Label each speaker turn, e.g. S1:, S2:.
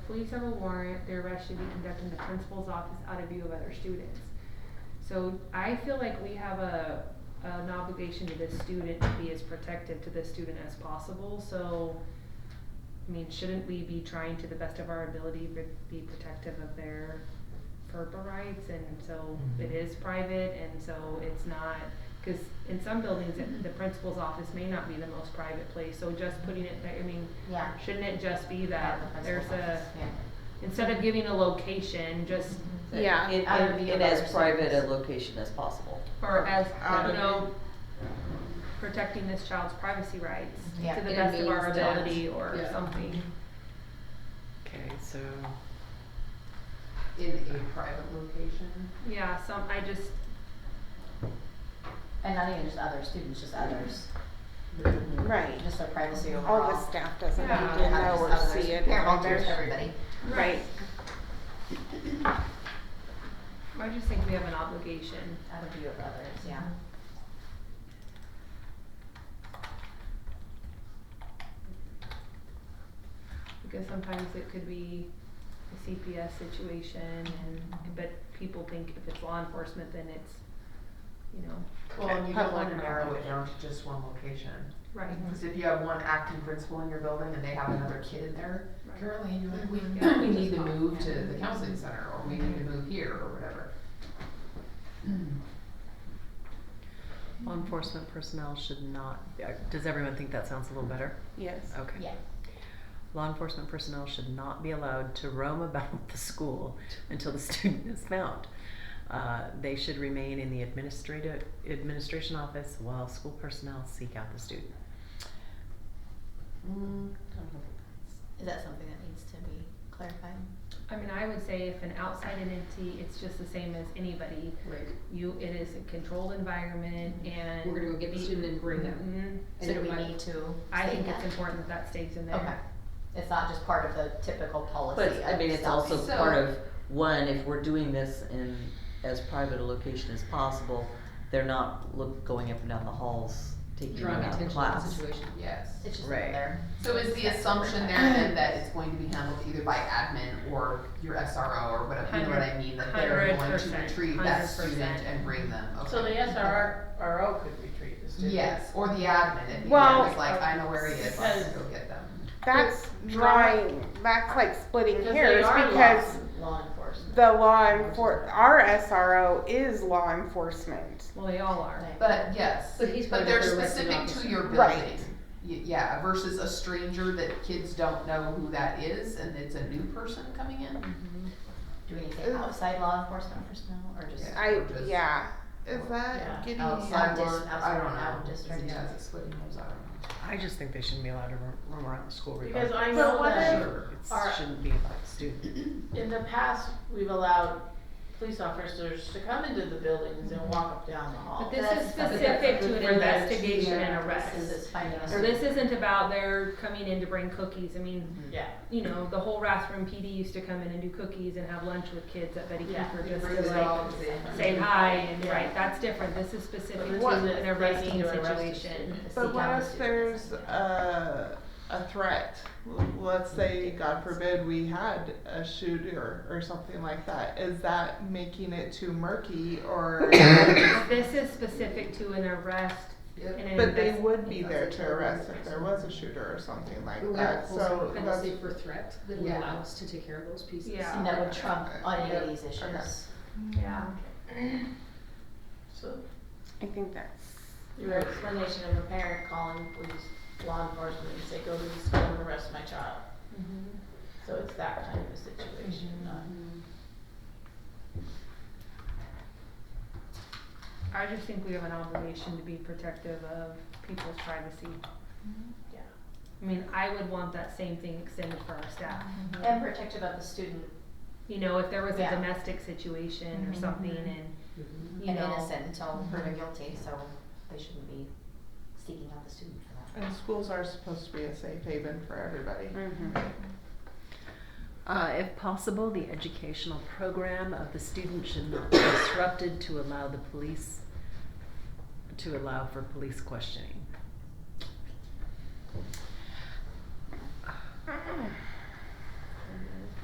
S1: police have a warrant, their arrest should be conducted in the principal's office out of view of other students. So I feel like we have a, an obligation to this student to be as protective to this student as possible, so, I mean, shouldn't we be trying to the best of our ability to be protective of their FERPA rights, and so it is private, and so it's not, cause in some buildings, it- the principal's office may not be the most private place, so just putting it there, I mean,
S2: Yeah.
S1: shouldn't it just be that
S2: Yeah, the
S1: there's
S2: principal
S1: a,
S2: office, yeah.
S1: instead of giving a location, just,
S2: That
S3: Yeah.
S4: In,
S2: Other
S4: in,
S2: view
S4: in
S2: of
S4: as
S2: other
S4: private a
S2: students.
S4: location as possible.
S1: or as,
S2: Um,
S1: you know, protecting this child's privacy rights
S2: Yeah.
S1: to the
S2: It
S1: best of our
S2: means that.
S1: ability or
S5: Yeah.
S1: something.
S5: Okay, so,
S6: in a private location.
S1: Yeah, some, I just,
S2: And not even just other students, just others.
S3: Right.
S2: Just their privacy overall.
S3: All the staff doesn't need
S1: Yeah.
S3: to know or see it.
S2: Parent
S3: all
S2: volunteers,
S3: their-
S2: everybody.
S3: Right.
S1: I just think we have an obligation.
S2: Out of view of others, yeah.
S1: Because sometimes it could be a CPS situation and, but people think if it's law enforcement, then it's, you know,
S6: Well, and you don't
S3: Public
S6: wanna narrow it down to just one location.
S1: right,
S6: Cause if you have one acting principal in your building and they have another kid in there,
S1: right,
S6: currently, you're like, we,
S1: Yeah.
S6: Mm-hmm. we need to move to the counseling center, or we need to move here, or whatever.
S5: law enforcement personnel should not, uh, does everyone think that sounds a little better?
S3: Yes.
S5: Okay.
S2: Yeah.
S5: Law enforcement personnel should not be allowed to roam about the school until the student is found. Uh, they should remain in the administrative, administration office while school personnel seek out the student.
S4: Mm,
S2: Is that something that needs to be clarified?
S1: I mean, I would say if an outside entity, it's just the same as anybody.
S7: Right,
S1: You, it is a controlled environment and.
S7: we're gonna go get the student and bring them.
S1: Mhm.
S7: And
S2: So do
S7: it
S2: we
S7: might-
S2: need to state
S1: I think it's
S2: that?
S1: important that that stays in
S2: Okay.
S1: there.
S2: It's not just part of the typical policy
S4: But, I
S2: of
S4: mean, it's
S2: self-
S4: also part of, one, if we're doing this in as private a location as possible, they're not look, going up and down the halls, taking them
S7: Drawing
S4: out
S7: attention
S4: of
S7: to the
S4: class.
S7: situation.
S6: Yes.
S2: It's just
S5: Right.
S2: there.
S6: So is the assumption there then that it's going to be handled either by admin or your SRO or whatever, you know what I mean? That they're
S1: Hundred-
S6: going to
S1: hundred
S6: retrieve
S1: percent,
S6: that student
S1: hundred
S6: and bring them, okay?
S8: So the SRO could retrieve the student.
S6: Yes, or the admin, if the
S3: Well-
S6: admin's like, I know where he is, let's go get them.
S3: That's
S8: But
S3: drawing, that's like splitting
S8: Because they
S3: hairs
S8: are
S3: because
S2: Law enforcement.
S3: the law enfor, our SRO is law enforcement.
S1: Well, they all are.
S2: Right.
S6: But yes,
S7: But he's
S6: but
S7: part of
S6: they're
S7: the directing
S6: specific to
S7: officer.
S6: your building.
S3: Right.
S6: Y- Yeah, versus a stranger that kids don't know who that is and it's a new person coming in.
S2: Do we need to say outside law enforcement personnel or just?
S6: Yeah.
S3: I,
S6: Or just-
S3: yeah. Is
S6: Yeah.
S3: that getting?
S6: Outside
S2: Out dis-
S6: one, I
S2: outside
S6: don't
S2: one, out
S6: know.
S2: district.
S6: Yeah, it's splitting those, I
S5: I just think they shouldn't be allowed to roam, roam around the school
S8: Because
S5: regardless.
S8: I
S3: But
S8: know
S3: what
S6: don't know.
S8: that
S6: Sure.
S8: Our-
S5: It shouldn't be about the student.
S8: in the past, we've allowed police officers to come into the buildings and walk up down the
S1: But
S8: hall.
S1: this
S2: That's
S1: is
S2: something
S1: specific
S7: that's
S1: to an
S7: for that
S1: investigation and
S7: teacher.
S2: This
S1: arrest.
S2: is finding a.
S1: So this isn't about they're coming in to bring cookies. I mean,
S8: Yeah,
S1: you know, the whole Rathrum PD used to come in and do cookies and have lunch with kids at Betty
S8: Yeah,
S1: Keeper
S6: We
S1: just
S6: bring
S1: to
S6: it
S1: like
S6: all to the-
S1: say hi and
S8: Yeah.
S1: right. That's different. This is specific
S8: But this
S1: to
S8: is if
S1: an
S8: they
S1: arresting
S8: need to arrest a
S1: situation.
S8: student.
S2: seek
S9: But
S2: out
S9: what
S2: the
S9: if
S2: students.
S9: there's a, a threat? L- Let's say, God forbid, we had a shooter or something like that. Is that making it too murky or?
S1: This is specific to an arrest
S6: Yep.
S1: and an
S9: But they
S1: invest-
S9: would be there to arrest if there was a shooter or something like
S7: We're gonna have a
S9: that,
S7: whole
S9: so
S7: separate
S9: that's,
S7: policy for threat that would
S6: Yeah.
S7: allow us to take care of those pieces.
S1: Yeah.
S2: And that would trump on any of
S9: Yeah.
S2: these
S9: uh, Okay.
S2: issues.
S1: Yeah.
S8: so
S3: I think that's,
S8: your explanation of a parent calling police, law enforcement, and say, go to the school and arrest my child.
S1: Mm-hmm.
S8: So it's that kind of a situation,
S9: Mm-hmm.
S8: not.
S1: I just think we have an obligation to be protective of people's privacy.
S2: Mm-hmm.
S8: Yeah.
S1: I mean, I would want that same thing extended for our staff.
S9: Mm-hmm.
S2: And protective of the student
S1: You know, if there was a
S2: Yeah. Mm-hmm.
S1: domestic situation or something and,
S7: Mhm.
S1: you
S2: and
S1: know.
S2: innocent until
S9: Mm-hmm.
S2: proven guilty, so they shouldn't be seeking out the student for that.
S9: and schools are supposed to be a safe haven for everybody.
S3: mhm.
S5: Uh, if possible, the educational program of the student should not be disrupted to allow the police, to allow for police questioning.